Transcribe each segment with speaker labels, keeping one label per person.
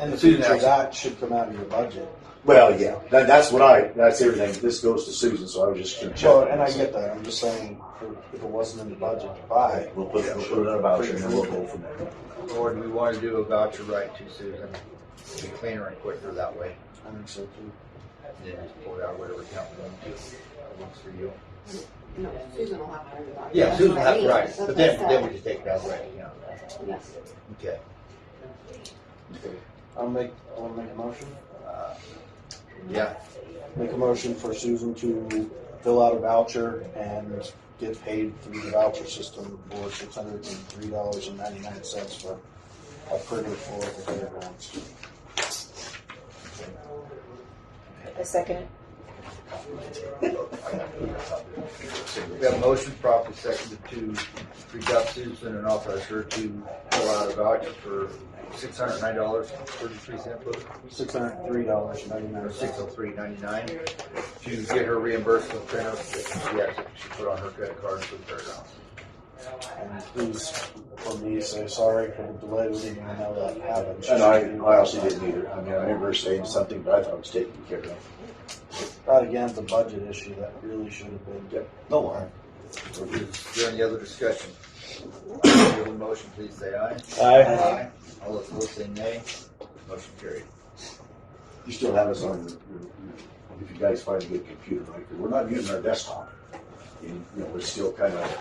Speaker 1: And the
Speaker 2: Two
Speaker 1: future
Speaker 2: thousand.
Speaker 1: that should come out of your budget.
Speaker 2: Well, yeah, that, that's what I, that's everything. This goes to Susan, so I was just gonna check.
Speaker 1: Well, and I get that, I'm just saying, if it wasn't in the budget to buy,
Speaker 2: We'll put, we'll put it on a voucher and then we'll go from there.
Speaker 3: Or do we want to do a voucher right to Susan? Be cleaner and quicker that way.
Speaker 1: I think so too.
Speaker 3: And then just pull it out whatever account we want to. That works for you.
Speaker 4: No, Susan will have to worry about it.
Speaker 3: Yeah,
Speaker 4: That's
Speaker 3: Susan,
Speaker 4: what I
Speaker 3: that's
Speaker 4: mean.
Speaker 3: right.
Speaker 4: That's
Speaker 3: But
Speaker 4: what
Speaker 3: then,
Speaker 4: I
Speaker 3: then we just take that right account.
Speaker 4: said. Yes.
Speaker 3: Okay.
Speaker 1: I'll make, I wanna make a motion,
Speaker 3: Uh, Yeah,
Speaker 1: make a motion for Susan to fill out a voucher and get paid through the voucher system for six hundred and three dollars and ninety-nine cents for a printer for the fairgrounds.
Speaker 5: A second.
Speaker 3: we have a motion properly seconded to reach out to Susan and authorize her to fill out a voucher for six hundred nine dollars thirty-three cent book,
Speaker 1: Six hundred and three dollars and
Speaker 3: or
Speaker 1: ninety-nine
Speaker 3: six
Speaker 1: cents.
Speaker 3: oh three ninety-nine, to get her reimbursement printer that she actually should put on her credit card for the fairgrounds.
Speaker 1: And please, for me, say sorry for the delay, we didn't even know that happened.
Speaker 2: And I, I also didn't either. I mean, I remember her saying something, but I thought it was taken care of.
Speaker 1: Not again, it's a budget issue that really should have been.
Speaker 2: No, I,
Speaker 3: Is there any other discussion? All in favor of the motion, please say aye.
Speaker 1: Uh,
Speaker 3: Aye. All opposed, say nay. Motion carried.
Speaker 2: you still have us on, your- your- if you guys find a good computer, right? 'Cause We're not using our desktop. And, you know, we're still kind of,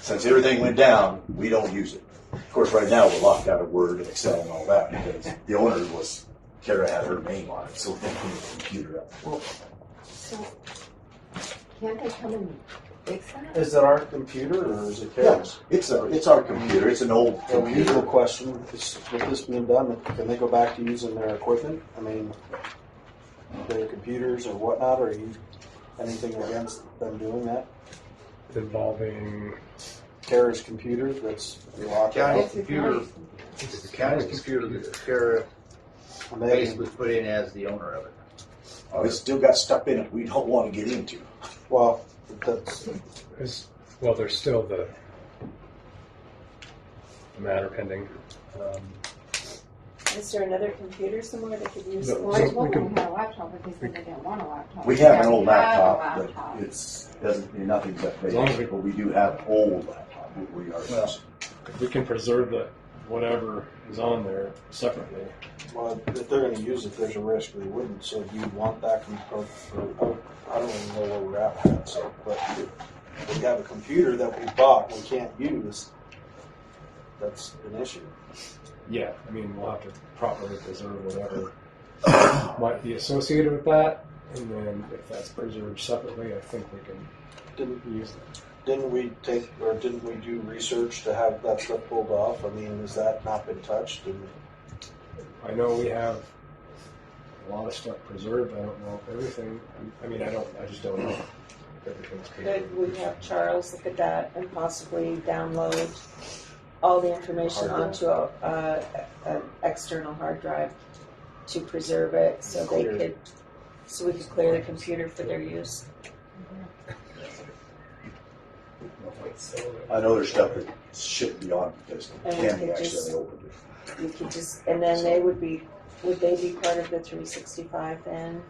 Speaker 2: since everything went down, we don't use it. Of course, right now, we're locked out of Word and Excel and all that because the owner was, Kara had her name on it, so we couldn't put the computer up.
Speaker 4: So, can't they come and fix that?
Speaker 1: Is it our computer or is it
Speaker 2: Yeah,
Speaker 1: Karen's?
Speaker 2: it's a, it's our computer. It's an old
Speaker 1: The usual
Speaker 2: computer.
Speaker 1: question, is with this being done, can they go back to using their equipment? I mean, their computers or whatnot, or you, anything against them doing that?
Speaker 6: involving
Speaker 1: Kara's computer that's locked
Speaker 3: County
Speaker 1: out.
Speaker 4: It's
Speaker 3: computer,
Speaker 4: nice.
Speaker 3: it's the county's computer that Kara
Speaker 1: Megan,
Speaker 3: basically put in as the owner of it.
Speaker 2: Oh, it's still got stuff in it we don't want to get into.
Speaker 1: well, that's,
Speaker 6: is well there's still the the matter pending um,
Speaker 5: Is there another computer somewhere that could use?
Speaker 6: No.
Speaker 4: Well,
Speaker 6: So
Speaker 4: they told
Speaker 6: we
Speaker 4: them
Speaker 6: can-
Speaker 4: we had a laptop, but they said they didn't want a laptop.
Speaker 2: We have an
Speaker 4: Now
Speaker 2: old
Speaker 4: have a
Speaker 2: laptop,
Speaker 4: laptop.
Speaker 2: but it's, doesn't, nothing's
Speaker 6: As long as we-
Speaker 2: updated, but we do have old laptop, that we are
Speaker 6: Well,
Speaker 2: using.
Speaker 6: if we can preserve the whatever is on there separately
Speaker 1: well, if they're gonna use it, there's a risk they wouldn't, so do you want that com- or- or- I don't even know where we're at with that, so, but if we have a computer that we bought, we can't use, that's an issue.
Speaker 6: yeah i mean we'll have to properly preserve whatever might be associated with that and then if that's preserved separately i think we can
Speaker 1: Didn't
Speaker 6: use that
Speaker 1: Didn't we take, or didn't we do research to have that stuff pulled off? I mean, has that not been touched? And
Speaker 6: i know we have a lot of stuff preserved i don't know if everything i mean i don't i just don't know if everything's preserved
Speaker 5: Could we have Charles look at that and possibly download all the information
Speaker 1: Hard drive.
Speaker 5: onto a, uh, an external hard drive to preserve it so they
Speaker 1: Clear.
Speaker 5: could, so we could clear the computer for their use?
Speaker 2: I know there's stuff that shouldn't be on because
Speaker 5: And we
Speaker 2: Tammy
Speaker 5: could just-
Speaker 2: accidentally opened it.
Speaker 5: You could just, and then they would be, would they be part of the three sixty-five then?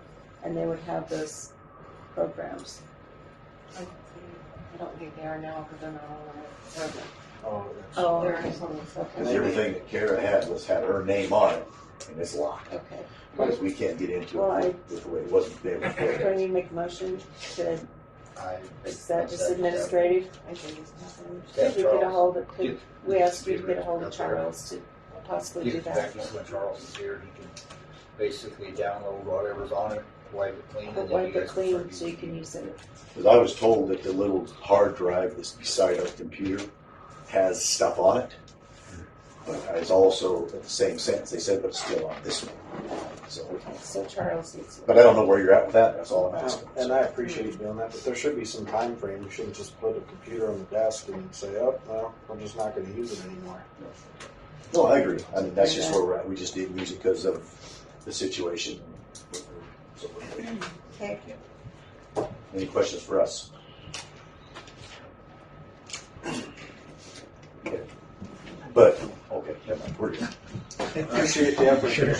Speaker 5: And they would have those programs?
Speaker 4: I don't think they are now, because they're not on it.
Speaker 1: oh,
Speaker 5: Oh,
Speaker 4: They're just on the
Speaker 2: Because
Speaker 4: supplement.
Speaker 2: everything that Kara had was, had her name on it and it's locked.
Speaker 5: okay.
Speaker 2: Because we can't get into
Speaker 5: Well, I-
Speaker 2: it with the way it wasn't there
Speaker 5: Do I
Speaker 2: before.
Speaker 5: need to make a motion to,
Speaker 3: I-
Speaker 5: is that just administrative?
Speaker 4: I think it's nothing.
Speaker 5: Could we get a hold of, could,
Speaker 3: Get-
Speaker 5: we asked you to get a hold of Charles to possibly do
Speaker 3: Get
Speaker 5: that?
Speaker 3: back to when Charles is here, he can basically download whatever's on it, wipe it clean. and
Speaker 5: But
Speaker 3: then
Speaker 5: wipe
Speaker 3: you
Speaker 5: it
Speaker 3: guys
Speaker 5: clean
Speaker 3: can-
Speaker 5: so you can use it.
Speaker 2: Because I was told that the little hard drive that's beside our computer has stuff on it. But I was also, at the same sentence, they said, but it's still on this one. So,
Speaker 5: So Charles needs to.
Speaker 2: but I don't know where you're at with that, that's all I'm asking.
Speaker 1: that's- And I appreciate you doing that, but there should be some time frame. You shouldn't just put a computer on the desk and say, oh, well, I'm just not going to use it anymore.
Speaker 2: No, I agree. I mean, that's just where we're at. We just didn't use it because of the situation. So,
Speaker 5: Okay.
Speaker 2: Any questions for us? Okay. But, okay, never mind. we're good.
Speaker 1: Appreciate the effort.